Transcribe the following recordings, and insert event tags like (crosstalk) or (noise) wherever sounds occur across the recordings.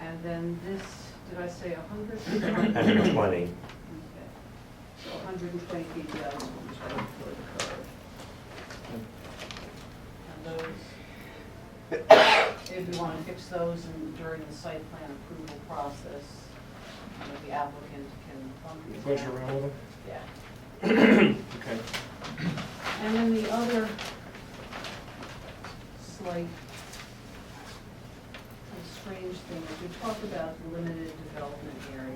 And then this, did I say a hundred? hundred and twenty. Okay. So hundred and twenty feet down from the side of the curve. And those, if we want to fix those and during the site plan approval process, you know, the applicant can bump these Pleasure down. around with them? Yeah. Okay. And then the other slight and strange thing is we talked about the limited development area.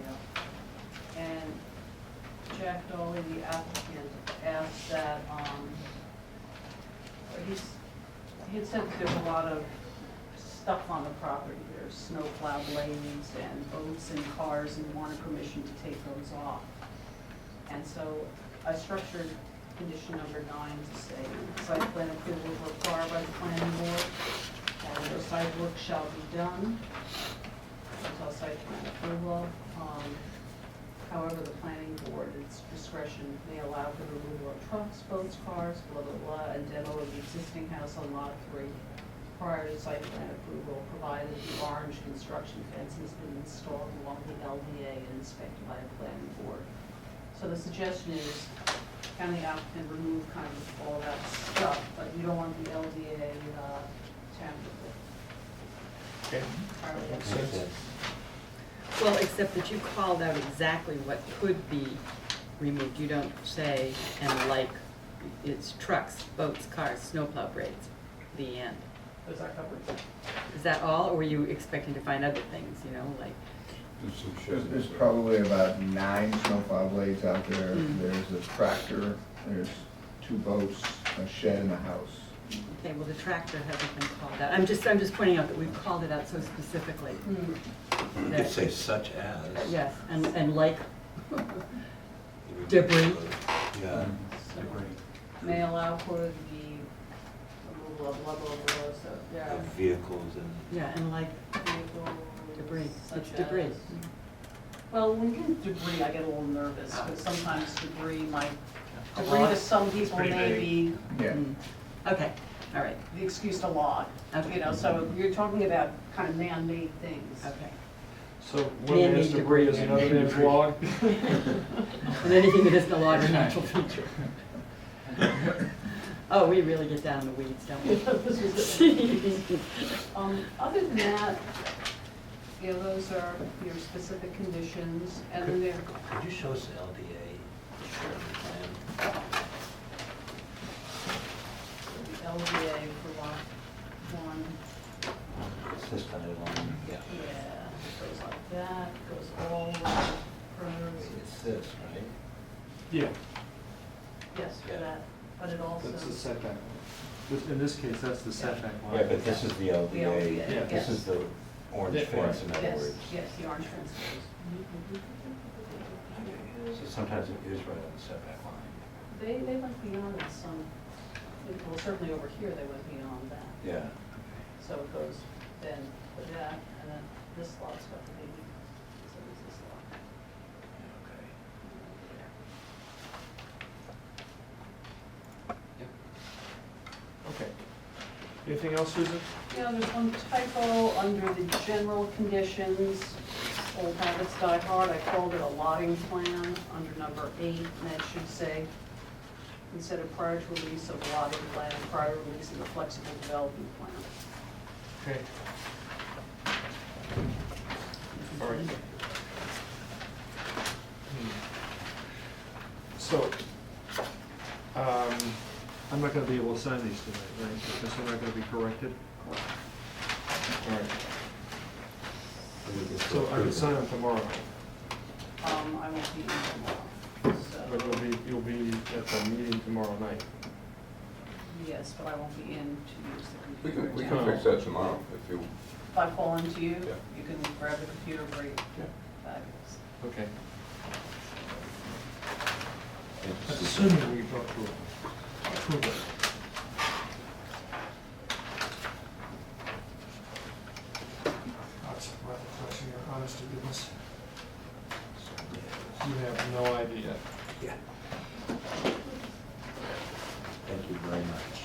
And Jack Dolly, the applicant, asked that, um, or he's, he had said that there's a lot of stuff on the property. There's snowplowed lanes and boats and cars and wanted permission to take those off. And so I structured condition number nine to say, site plan approval is required by the planning board, and no site work shall be done until site plan approval. Um, However, the planning board, at its discretion, may allow for the removal of trucks, boats, cars, blah, blah, blah, and demo of the existing house on lot three prior to site plan approval, provided the orange construction fence has been installed along the LDA and inspected by the planning board. So the suggestion is, county applicant remove kind of all that stuff, but you don't want the LDA, uh, tampered Okay. with. Makes sense. Well, except that you called out exactly what could be removed. You don't say, and like, it's trucks, boats, cars, snowplow braids, the end. Those are covered. Is that all, or were you expecting to find other things, you know, like, There's, there's probably about nine snowplow blades out there. Mm. There's a tractor, there's two boats, a shed and a house. okay, well, the tractor hasn't been called out. I'm just, I'm just pointing out that we've called it out so specifically. Hmm. You could say such as. Yes, and, and like, (laughs) Debris. Yeah. So May allow for the removal of level of below, so there Of are Vehicles and, yeah, and like vehicles debris, such it's debris. as- Well, when you get debris, I get a little nervous, because sometimes debris might, Ah. A debris lot. to some people pretty may vague. be Yeah. Mm. Okay, all right, the excuse to log. You Okay. know, so you're talking about kind of man-made things. okay. So one man's Man-made debris is another man's log? And anything that isn't a log or natural feature. Oh, we really get down in the weeds, don't we? (laughs) This is it. (laughs) Um, other than that, you know, those are your specific conditions, and then there, could you show us the LDA? Sure. plan? the LDA for lot one, It's this kind of one. Yeah. yeah, goes like that, goes all around the curves. It's this, right? Yeah, Yes, for Yeah. that, but it also, that's the setback. This- In this case, that's the setback line. Yeah, but this is the The LDA, LDA. Yeah. This is the orange Yeah. fence, in other yes, words. yes, the orange fence goes. Mm-hmm. So sometimes it is right on the setback line. They, they went beyond it some, well, certainly over here, they went beyond that. Yeah. So it goes then to that, and then this lot's got the baby, so it's this lot. Okay. Okay. Anything else, Susan? Yeah, there's one typo under the general conditions, old habits die hard, I called it a lotting plan under number eight, and that should say, instead of prior to release of lotting plan, prior release of the flexible development plan. Okay. All right. Hmm. So, um, I'm not gonna be able to sign these tonight, right, because they're not gonna be corrected? All right, so I can sign them tomorrow, Um, I won't be in tomorrow, but so, you'll be, you'll be at the meeting tomorrow night. yes, but I won't be in to use the We can, we computer. can now. fix that tomorrow if you, If I call into you, Yeah. you can grab the computer, break, Yeah. fabulous. Okay. It's- Assuming we got to approve it. That's rather question, your honest to goodness. You have no idea. Thank you very much.